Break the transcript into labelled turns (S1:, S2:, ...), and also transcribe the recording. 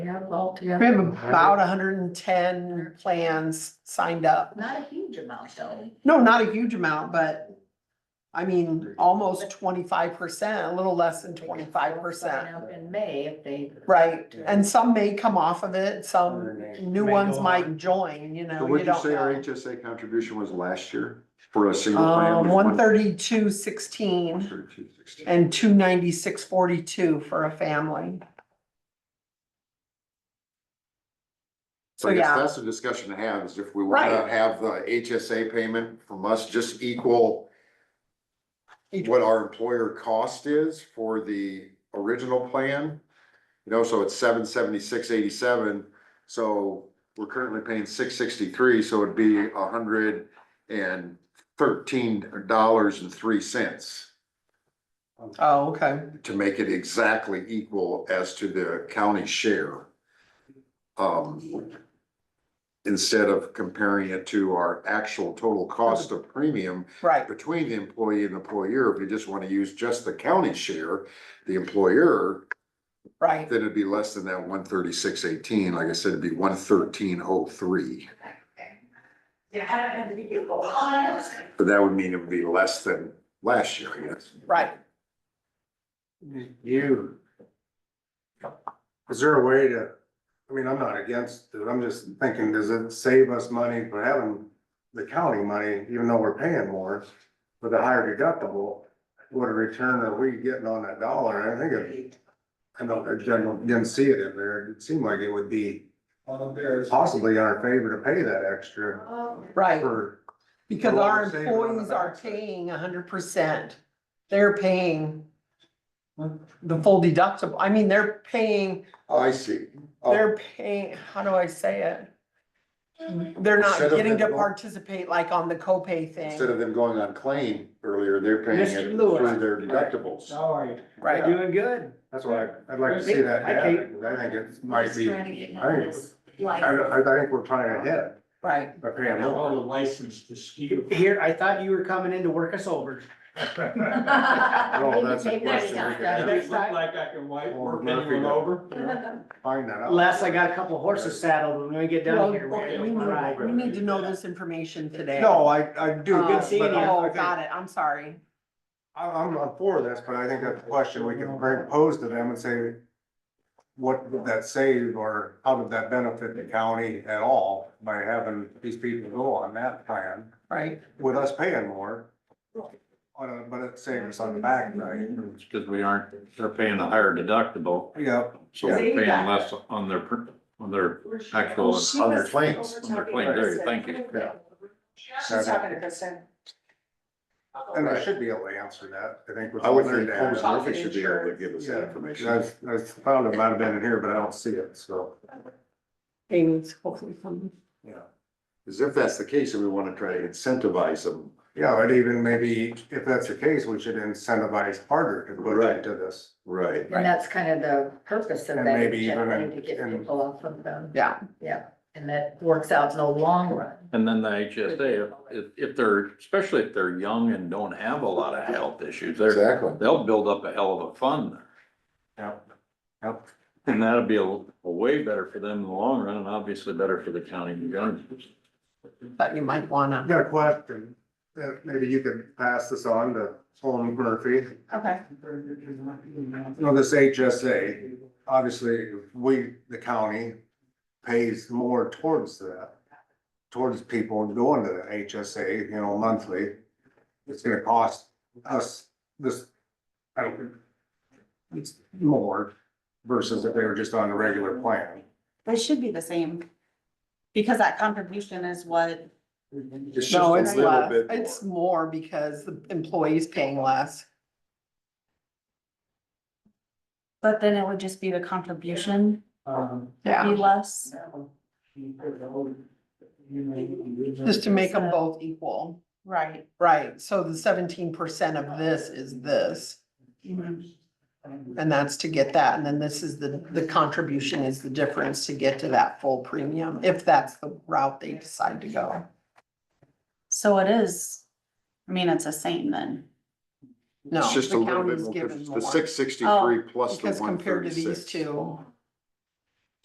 S1: Yeah, all
S2: We
S1: together.
S2: have about hundred and ten plans signed up.
S1: Not a huge amount though.
S2: No, not a huge amount, but I mean, almost twenty-five percent, a little less than twenty-five
S1: Sign
S2: percent.
S1: Up in May if they.
S2: Right, and some may come off of it, some new
S3: May
S2: ones
S3: go
S2: might
S3: on.
S2: join, you know,
S4: So
S2: you
S4: what'd you
S2: don't
S4: say our
S2: know.
S4: HSA contribution was last year for a single
S2: Um,
S4: family?
S2: one thirty-two sixteen
S4: 132.16.
S2: and two ninety-six forty-two for a family.
S4: So
S2: so
S4: I guess
S2: yeah.
S4: that's the discussion to have, is if we wanna
S2: Right.
S4: have the HSA payment from us just equal what our employer cost is for the original plan, you know, so it's seven seventy-six eighty-seven, so we're currently paying six sixty-three, so it'd be a hundred and thirteen dollars and three cents
S2: Oh, okay.
S4: to make it exactly equal as to the county share. Um, instead of comparing it to our actual total cost of premium
S2: Right,
S4: between the employee and employer, if you just wanna use just the county share, the employer,
S2: right.
S4: then it'd be less than that one thirty-six eighteen, like I said, it'd be one thirteen oh three.
S1: Oh,
S4: But that would mean it would be less than last year, I guess.
S2: Right.
S3: You. Is there a way to, I mean, I'm not against it, I'm just thinking, does it save us money for having the county money, even though we're paying more? With a higher deductible, what a return are we getting on that dollar, I think it. I know, I didn't didn't see it in there, it seemed like it would be possibly in our favor to pay that extra
S2: Right.
S3: for.
S2: Because
S3: So what
S2: our
S3: we're saving on the
S2: employees are
S3: backside.
S2: paying hundred percent. They're paying the full deductible. I mean, they're paying,
S4: Oh, I see.
S2: they're paying, how do I say it? They're not
S4: Instead of
S2: getting to
S4: them go-
S2: participate like on the copay
S4: Instead
S2: thing,
S4: of them going on claim earlier, they're paying it
S5: Mr. Lewis.
S4: through their deductibles.
S5: How are you?
S2: right?
S5: You're doing good.
S3: That's why I'd like to see that, data, 'cause I think it might be, I, I I think we're trying ahead
S2: Right,
S3: by paying more.
S5: the license to ski. Here, I thought you were coming in to work us over.
S3: Oh, that's a question we could
S5: Maybe
S3: have.
S5: next time.
S6: Like I can wipe
S3: Or
S6: work
S3: Murphy
S6: anyone
S3: does.
S6: over?
S3: Find that out.
S5: Les, I got a couple horses saddled when we get
S2: Well,
S5: down here.
S2: we
S5: We're
S2: need-
S5: gonna ride.
S2: we need to know this information today.
S3: No, I, I do.
S2: Uh,
S5: good seeing
S3: but I- I
S2: Oh,
S3: think-
S2: got it, I'm sorry.
S3: I, I'm not for this, but I think that's a question we can bring, pose to them and say, what would that save or how did that benefit the county at all by having these people go on that plan
S2: Right,
S3: with us paying more? On a- but it saves us on the back, right?
S7: It's because we aren't, they're paying a higher deductible,
S3: Yep.
S7: so we're paying less on their, per- on their actual,
S4: On their claims.
S7: on their claim, there, thank you.
S3: She's talking to Kristen. And I should be able to answer that, I think. with
S4: I would
S3: all their
S4: think
S3: data.
S4: Holmes Murphy should be able to give us that
S3: Yeah,
S4: information.
S3: I've, I've found it might have been in here, but I don't see it, so,
S2: Amy's hopefully coming.
S3: yeah.
S4: Cause if that's the case, and we wanna try to incentivize them,
S3: Yeah, but even maybe if that's the case, we should incentivize harder to put
S4: Right.
S3: into this.
S4: right,
S1: And that's kind of the purpose of
S3: And
S1: that,
S3: maybe even
S1: agenda, to
S3: in-
S1: get
S3: in-
S1: people off of them.
S2: Yeah.
S1: Yeah, and that works out in the long run.
S7: And then the HSA, if, if they're, especially if they're young and don't have a lot of health issues, they're,
S4: exactly.
S7: they'll build up a hell of a fund there.
S3: Yep. Yep.
S7: And that'll be a, a way better for them in the long run, and obviously better for the county and government.
S2: Thought you might
S3: I
S2: wanna.
S3: got a question, that maybe you could pass this on to Holm Murphy.
S2: Okay.
S3: You know, this HSA, obviously, we, the county pays more towards that. Towards people going to the HSA, you know, monthly. It's gonna cost us this, I don't. It's more versus if they were just on the regular plan.
S8: They should be the same. Because that contribution is what,
S4: It's just
S2: No,
S4: a
S2: it's
S4: little
S2: less,
S4: bit more.
S2: it's more because the employee's paying less.
S8: but then it would just be the contribution
S5: Um,
S2: Yeah.
S8: be less.
S2: Just to make them both equal,
S8: Right.
S2: right, so the seventeen percent of this is this, and that's to get that, and then this is the, the contribution is the difference to get to that full premium, if that's the route they decide to go.
S8: So it is, I mean, it's the same then.
S2: No,
S4: It's just a
S2: the
S4: little bit
S2: county's
S4: more,
S2: given
S4: difference. the
S2: more, Oh,
S4: six sixty-three plus the
S2: because
S4: one
S2: compared to these
S4: thirty-six.
S2: two,